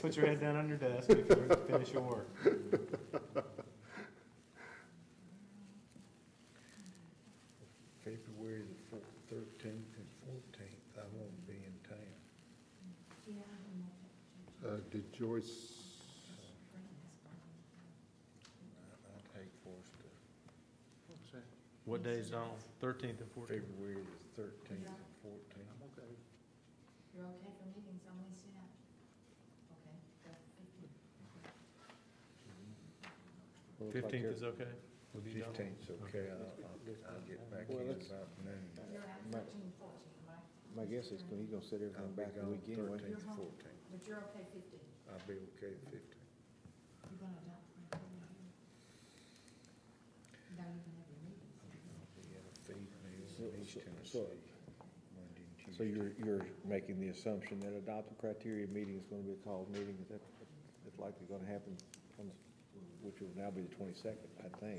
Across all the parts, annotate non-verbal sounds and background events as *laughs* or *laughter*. Put your head down on your desk before you finish your work. February the thirteenth and fourteenth, I won't be in town. Uh, did Joyce, I take for us to What day is on? Thirteenth and fourteenth? February the thirteenth and fourteenth. You're okay for meetings on Wednesday night? Okay, that's fifteen. Fifteenth is okay? With you, John? Fifteenth's okay, I'll, I'll, I'll get back in Well, let's- about noon. You're out My- thirteen, fourteen, right? Oh. My guess is he's gonna set I'll everything be back a gone week anyway. thirteenth, You're home. fourteenth, But you're okay fifteen. I'll be okay the fifteenth. You're gonna adopt. my opinion here. Now you can have your meetings. I'll be at a feed So- meal in East so- Tennessee, so- Monday and Tuesday. So you're, you're making the assumption that adopted criteria meeting is gonna be a called meeting, is that, that's likely gonna happen, on the- which will now be the twenty-second, I think.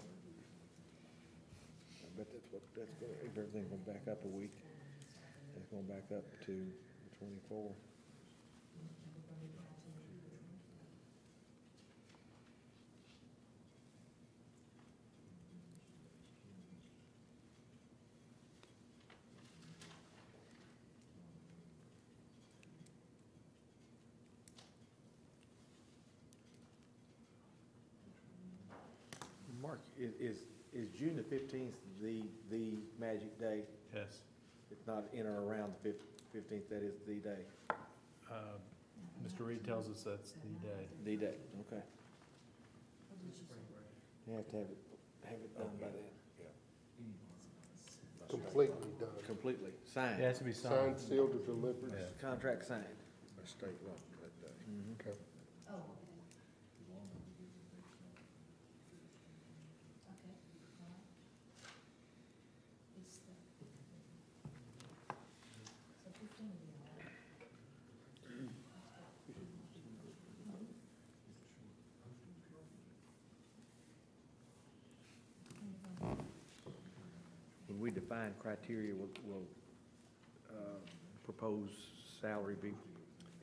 I bet that's what, that's gonna, if everything going back up a week, it's going back up to the twenty-four. Mark, i- is, is June the fifteenth the, the magic day? Yes. If not in or around the fifteenth, that is the day? Uh, Mr. Reed tells us that's the day. The day, okay. What did you say? You have to have it, have it done by then, completely done, completely It signed. has to be signed, signed. sealed, and delivered? Yeah, Contract signed. by state law uh, that day. Mm-hmm. Okay. Oh, okay. Okay, all right. It's the. So fifteen will be all right. When we define criteria, we'll, we'll, uh, propose salary be part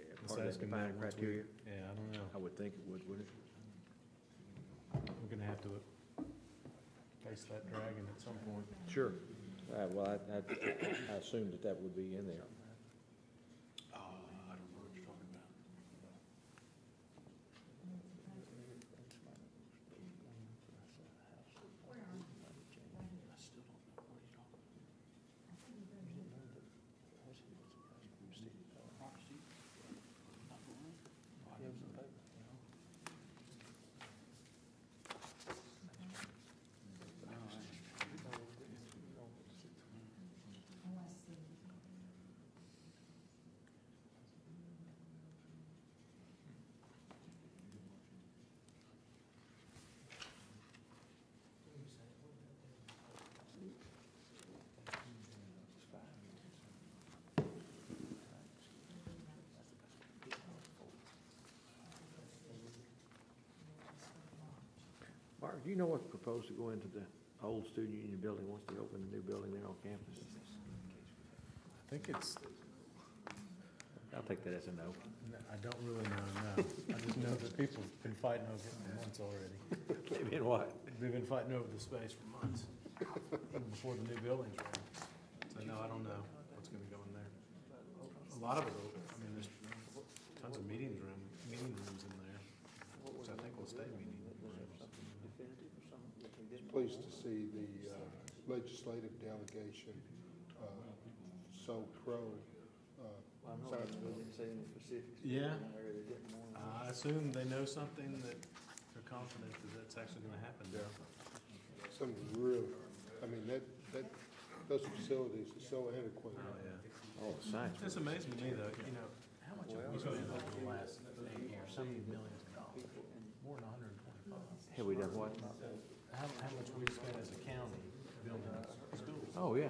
of that Let's ask him that defined once we- criteria? Yeah, I don't know. I would think it would, wouldn't We're gonna have to face that dragon at some point. it? Sure. All right, well, I, I, I assumed that that would be in there. Unless the. Mark, do you know what's proposed to go into the old student union building once they open the new building there on campus? I think it's, I'll take that as a *laughs* no. I don't really know, no. I just know that people have been fighting over it for months already. They've been what? They've been fighting over the space for months, even before the new buildings were. in. So no, I don't know what's gonna go in there. A lot of it, I mean, there's tons of meeting room, meeting rooms in there, which I think will stay meeting rooms. Pleased to see the uh, legislative delegation uh, so pro uh, Zionsville. Yeah. I assume they know something that they're confident that that's actually gonna happen. Some really, I mean, that, that, those facilities are so antiquated. Oh, yeah. Oh, science. It's amazing to me though, you know, how much have we spent over the last eight years, so many millions of dollars, more than hundred and twenty-five. Have we done what? How, how much we spent as a county building schools? Oh, yeah.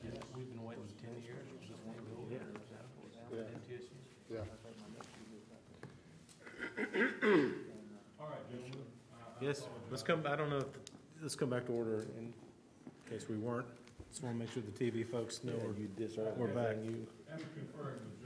Yeah, We've been waiting ten years for this one building. Yeah. MTSU. Yeah. Uh, Yes, let's come, I don't know, if- let's come back to order in case we weren't. Just want to make sure the TV folks know we're, You disarmed we're back. everything you. I'm conferring with uh,